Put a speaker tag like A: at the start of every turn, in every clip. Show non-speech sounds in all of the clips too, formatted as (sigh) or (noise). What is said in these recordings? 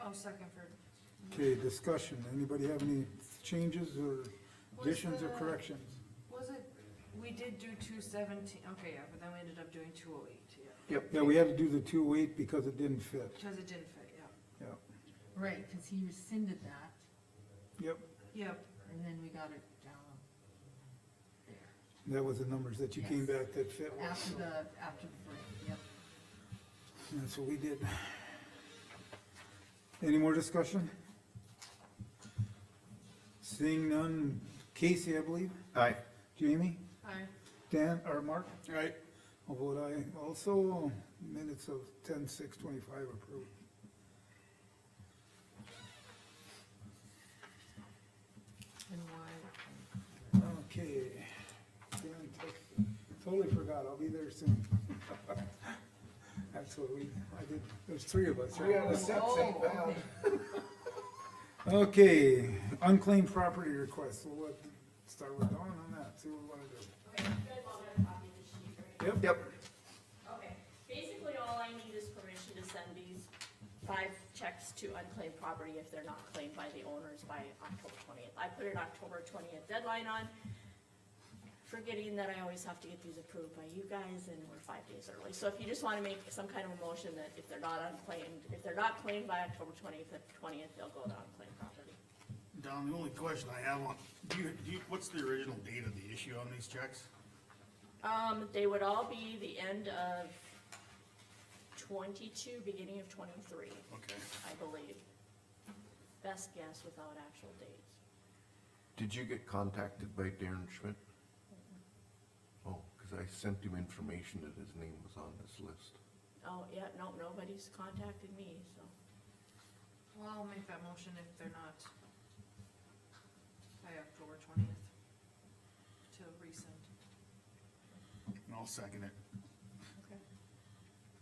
A: Oh, second for,
B: Okay, discussion, anybody have any changes or
A: Was
B: additions or
A: the-
B: corrections?
A: was it, we did do two seventeen, okay, yeah, but then we ended up doing two oh eight, yeah,
B: Yeah, we had to do the two eight because it didn't fit,
A: because it didn't fit, yeah.
B: yeah,
C: Right, cause he rescinded that,
B: yep,
A: Yep,
C: and then we got it down there,
B: that was the numbers that you came back that fit, with.
C: after the, after the break, yep.
B: that's what we did. Any more discussion? Seeing none, Casey, I believe,
D: Aye.
B: Jamie,
A: I,
B: Dan, or Mark?
D: Aye.
B: I'll vote aye, also, minutes of ten six twenty-five approved.
C: And why,
B: Okay. Dan, t- Totally forgot, I'll be there soon. (laughs) That's what we, I did, there's three of us. We had a set set
C: Oh,
B: down. (laughs) Okay, unclaimed property request, we'll let, start with Dawn on that, see what we wanna do.
E: Okay, you guys all got a copy of the sheet, right?
B: Yep.
D: Yep.
E: Okay, basically all I need is permission to send these five checks to unclaimed property if they're not claimed by the owners by October twentieth. I put an October twentieth deadline on, forgetting that I always have to get these approved by you guys and we're five days early. So if you just wanna make some kind of a motion that if they're not unclaimed, if they're not claimed by October twentieth, twentieth, they'll go to unclaimed property.
F: Don, the only question I have on, do you, do you, what's the original date of the issue on these checks?
E: Um, they would all be the end of twenty-two, beginning of twenty-three.
F: Okay.
E: I believe. Best guess without actual dates.
D: Did you get contacted by Darren Schmidt? Oh, cause I sent him information that his name was on this list.
E: Oh, yeah, no, nobody's contacted me, so.
A: well, I'll make that motion if they're not by October twentieth to resend.
F: And I'll second it.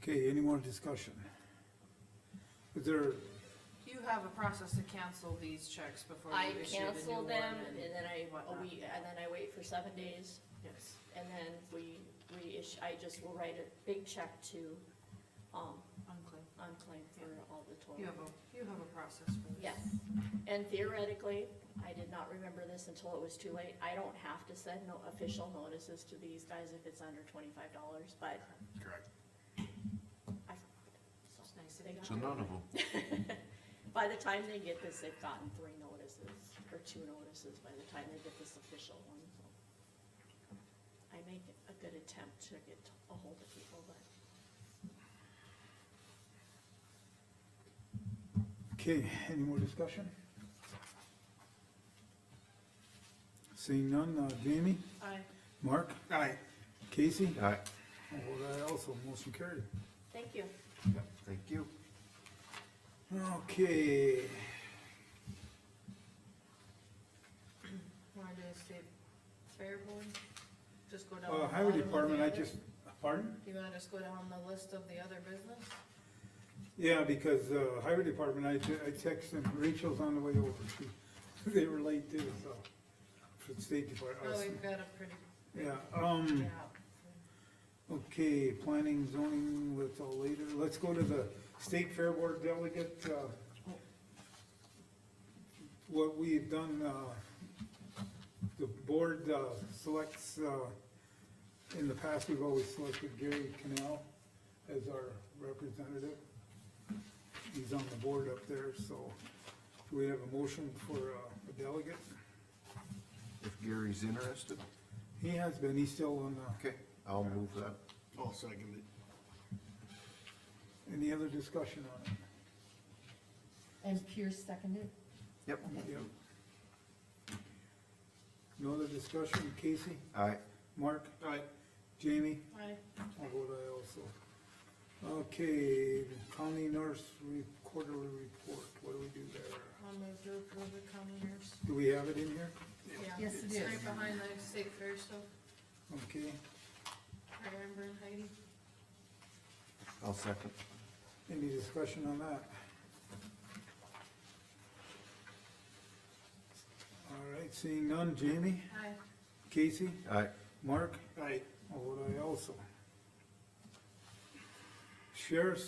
E: Okay.
B: Okay, any more discussion? Is there,
A: You have a process to cancel these checks before
E: I
A: you issue the new one.
E: cancel them and then I,
A: whatnot.
E: we, and then I wait for seven days
A: Yes,
E: and then we, we issue, I just will write a big check to, um,
A: unclean.
E: unclaimed for all the total.
A: You have a, you have a process for this.
E: Yes, and theoretically, I did not remember this until it was too late, I don't have to send no official notices to these guys if it's under twenty-five dollars, but
F: Correct.
E: I, so.
A: It's nice
E: They
A: that you
E: got
D: So none of them.
E: By the time they get this, they've gotten three notices, or two notices by the time they get this official one, so. I make a good attempt to get a hold of people, but
B: okay, any more discussion? Seeing none, uh, Jamie,
A: I,
B: Mark,
F: Aye.
B: Casey?
D: Aye.
B: I'll vote aye also, motion carried.
E: thank you.
D: Thank you.
B: Okay,
A: wanna do the state fair board? Just go down.
B: uh,
A: the
B: highway
A: bottom of the
B: department, I
A: other-
B: just, pardon?
A: Do you wanna just go down the list of the other business?
B: Yeah, because, uh, highway department, I, te- I text them, Rachel's on the way over, she, (laughs) they were late too, so. For the state department,
A: Oh,
B: us-
A: we've got a pretty,
B: yeah, um,
A: yeah,
B: okay, planning, zoning, that's all later, let's go to the state fair board delegate, uh. What we've done, uh, the board, uh, selects, uh, in the past, we've always selected Gary Canal as our representative. He's on the board up there, so do we have a motion for uh, a delegate?
D: If Gary's interested,
B: He has been, he's still on the,
D: okay, I'll move that.
F: I'll second it.
B: any other discussion on it?
C: and Pierce seconded,
D: Yep.
B: Yep. No other discussion, Casey,
D: Aye.
B: Mark,
F: Aye.
B: Jamie,
A: I,
B: I'll vote aye also. Okay, county nurse re- quarterly report, what do we do there?
A: I'll move to approve the commoners.
B: Do we have it in here?
A: Yeah.
C: Yes, it
A: it's
C: is.
A: Right behind the state fair stuff,
B: Okay,
A: right, Amber and Heidi.
D: I'll second.
B: any discussion on that? All right, seeing none, Jamie,
A: Hi.
B: Casey,
D: Aye.
B: Mark,
F: Aye.
B: I'll vote aye also. Sheriff's